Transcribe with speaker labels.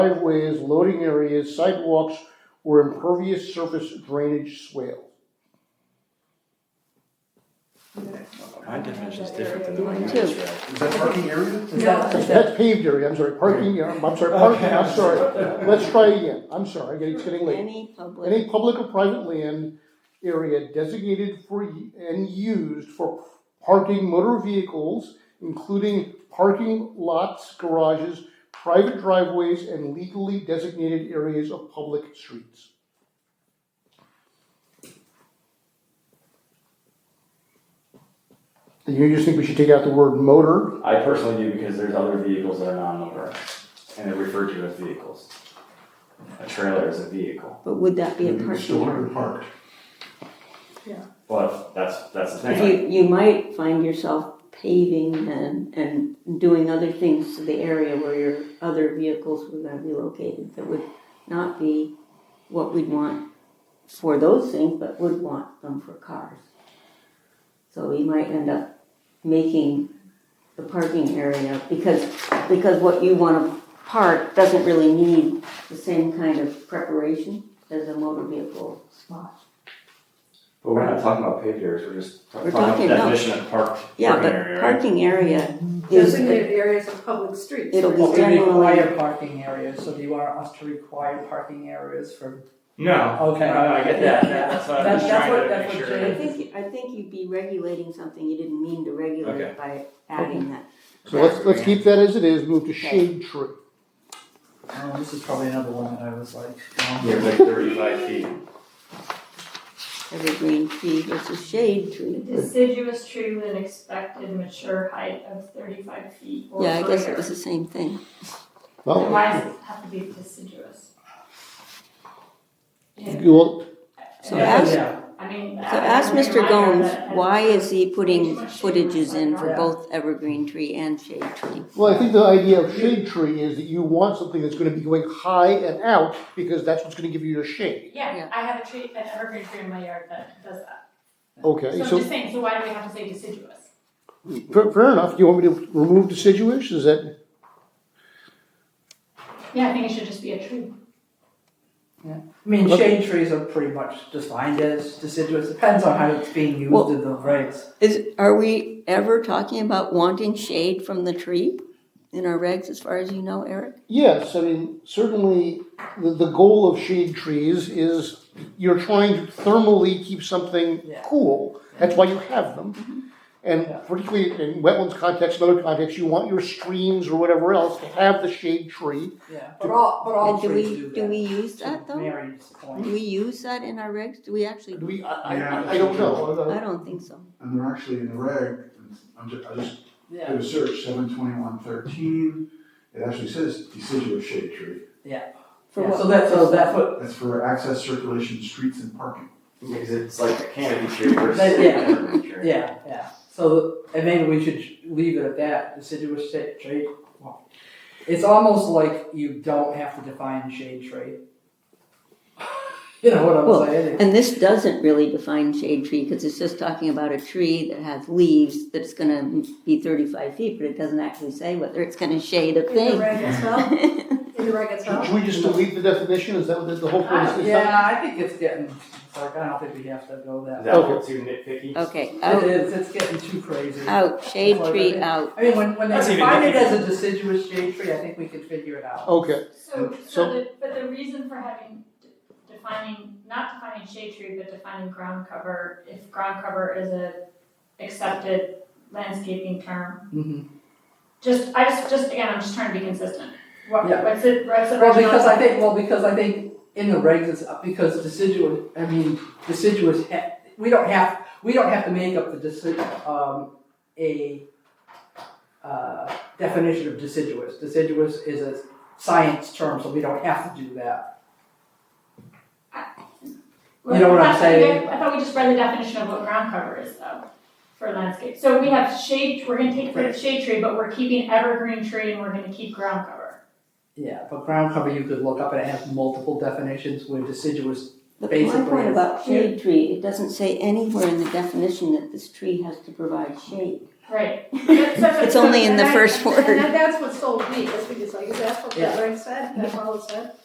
Speaker 1: driveways, loading areas, sidewalks, or impervious surface drainage swales.
Speaker 2: My definition is different than
Speaker 3: Two.
Speaker 2: what you just read.
Speaker 4: Is that parking area?
Speaker 3: Is that- is that-
Speaker 1: That's paved area, I'm sorry, parking, area. I'm sorry, parking, I'm sorry, let's try again, I'm sorry, it's getting late.
Speaker 5: Any public.
Speaker 1: Any public or private land area designated for, y- and used for parking motor vehicles, including parking lots, garages, private driveways, and legally designated areas of public streets. Do you just think we should take out the word motor?
Speaker 2: I personally do because there's other vehicles that are non-motorized, and they're referred to as vehicles. A trailer is a vehicle,
Speaker 5: But would that be a
Speaker 4: Maybe it's still
Speaker 5: parking?
Speaker 4: under parked.
Speaker 2: but that's, that's the thing.
Speaker 5: You, you might find yourself paving and, and doing other things to the area where your other vehicles were gonna be located that would not be what we'd want for those things, but would want them for cars. So we might end up making the parking area, because, because what you wanna park doesn't really need the same kind of preparation as a motor vehicle spot.
Speaker 2: But we're not talking about paved areas, we're just talking
Speaker 5: We're
Speaker 2: about the
Speaker 5: talking about-
Speaker 2: definition of park,
Speaker 5: Yeah,
Speaker 2: parking
Speaker 5: but
Speaker 2: area, right?
Speaker 5: parking area is,
Speaker 3: Designated areas of public streets.
Speaker 5: It'll be
Speaker 6: Well, we
Speaker 5: Generally-
Speaker 6: require parking areas, so do you want us to require parking areas for?
Speaker 2: No,
Speaker 6: Okay.
Speaker 2: no, I get that,
Speaker 6: Yeah.
Speaker 2: that, that's what I'm
Speaker 6: That-
Speaker 2: just
Speaker 6: that's
Speaker 2: trying
Speaker 6: what-
Speaker 2: to
Speaker 6: that's
Speaker 2: make
Speaker 6: what
Speaker 2: sure.
Speaker 5: I
Speaker 6: Jane-
Speaker 5: think, I think you'd be regulating something you didn't mean to regulate by adding that.
Speaker 1: So let's, let's keep that as it is, move to shade tree.
Speaker 6: Oh, this is probably another one that I was like, um,
Speaker 2: You're like thirty-five feet.
Speaker 5: Evergreen tree versus shade tree.
Speaker 3: Deciduous tree with an expected mature height of thirty-five feet or
Speaker 5: Yeah, I guess it
Speaker 3: greater.
Speaker 5: was the same thing.
Speaker 1: Well,
Speaker 3: Why does it have to be deciduous? Yeah.
Speaker 1: you will-
Speaker 5: So
Speaker 3: Yeah,
Speaker 5: ask-
Speaker 6: yeah,
Speaker 3: I mean.
Speaker 5: So ask Mr. Gomes, why is he putting footages in for
Speaker 6: Yeah.
Speaker 5: both evergreen tree and shade tree?
Speaker 1: Well, I think the idea of shade tree is that you want something that's gonna be going high and out, because that's what's gonna give you your shade.
Speaker 3: Yeah,
Speaker 5: Yeah.
Speaker 3: I have a tree, an evergreen tree in my yard that does that. So
Speaker 1: Okay,
Speaker 3: I'm
Speaker 1: so,
Speaker 3: just saying, so why do we have to say deciduous?
Speaker 1: fair, fair enough, you want me to remove deciduous, is that,
Speaker 3: Yeah, I think it should just be a tree.
Speaker 6: I mean,
Speaker 1: Look-
Speaker 6: shade trees are pretty much defined as deciduous, depends on how it's being
Speaker 5: Well-
Speaker 6: used in the regs.
Speaker 5: Is, are we ever talking about wanting shade from the tree in our regs, as far as you know, Eric?
Speaker 1: yes, I mean, certainly, the, the goal of shade trees is you're trying to thermally keep something
Speaker 6: Yeah. Mm-hmm.
Speaker 1: cool, that's why you have them. And
Speaker 6: Yeah.
Speaker 1: particularly in wetlands context, and other contexts, you want your streams or whatever else to have the shade tree.
Speaker 6: Yeah, but all, but
Speaker 5: And
Speaker 6: all
Speaker 5: do
Speaker 6: trees
Speaker 5: we,
Speaker 6: do that.
Speaker 5: do we use that
Speaker 6: To
Speaker 5: though?
Speaker 6: Mary's point.
Speaker 5: Do we use that in our regs? Do we actually?
Speaker 1: Do we, I, I,
Speaker 4: Yeah.
Speaker 1: I don't know.
Speaker 5: I don't think so.
Speaker 4: And they're actually in the reg, I'm just, I just
Speaker 6: Yeah.
Speaker 4: did a search, seven twenty-one thirteen, it actually says deciduous shade tree.
Speaker 5: For
Speaker 6: Yeah,
Speaker 5: what
Speaker 6: So that's, so that's what,
Speaker 4: That's for access, circulation, streets and parking.
Speaker 2: Because it's like a canopy tree versus
Speaker 6: That-
Speaker 2: an
Speaker 6: yeah.
Speaker 2: evergreen tree.
Speaker 6: yeah, yeah, so, and maybe we should leave it at that, deciduous shade tree. Well, It's almost like you don't have to define shade tree. You know what
Speaker 5: Well,
Speaker 6: I'm saying?
Speaker 5: And this doesn't really define shade tree, because it's just talking about a tree that has leaves that's gonna be thirty-five feet, but it doesn't actually say whether it's gonna shade a
Speaker 3: In the
Speaker 5: thing.
Speaker 3: reg itself, in the reg itself.
Speaker 1: Should we just delete the definition, is that what the, the whole point is? It's not-
Speaker 6: Yeah, I think it's getting, it's like, I don't think we have to go
Speaker 2: Is
Speaker 6: that.
Speaker 2: that a little too nitpicky?
Speaker 5: Okay,
Speaker 6: It
Speaker 5: out,
Speaker 6: is, it's getting too crazy.
Speaker 5: out, shade tree out.
Speaker 6: I mean, when, when they
Speaker 2: That's even
Speaker 6: define it
Speaker 2: nitpicky.
Speaker 6: as a deciduous shade tree, I think we can figure it out.
Speaker 1: Okay,
Speaker 3: So,
Speaker 1: So-
Speaker 3: so the, but the reason for having, d- defining, not defining shade tree, but defining ground cover, if ground cover is a accepted landscaping term,
Speaker 6: Mhm.
Speaker 3: just, I just, just again, I'm just trying to be consistent. What,
Speaker 6: Yeah.
Speaker 3: what's it, what's the
Speaker 6: Well,
Speaker 3: original-
Speaker 6: because I think, well, because I think in the regs, it's, because deciduous, I mean, deciduous, ha- we don't have, we don't have to make up the deci- um, a, uh, definition of deciduous. Deciduous is a science term, so we don't have to do that. you know what I'm
Speaker 3: I thought we did-
Speaker 6: saying?
Speaker 3: I thought we just read the definition of what ground cover is though, for landscape. So we have shade, we're gonna take rid of shade tree, but we're keeping evergreen tree and we're gonna keep ground cover.
Speaker 6: Yeah, but ground cover, you could look up and it has multiple definitions, where deciduous,
Speaker 5: But my
Speaker 6: Basically,
Speaker 5: point
Speaker 6: it's-
Speaker 5: about shade tree, it doesn't say anywhere in the definition that this tree has to provide shade.
Speaker 3: Right. That's such a-
Speaker 5: It's only in the
Speaker 7: And I-
Speaker 5: first
Speaker 7: And
Speaker 5: word.
Speaker 7: that- that's what's so weak, is because like, that's what the
Speaker 6: Yeah.
Speaker 7: reg said, that's all it said.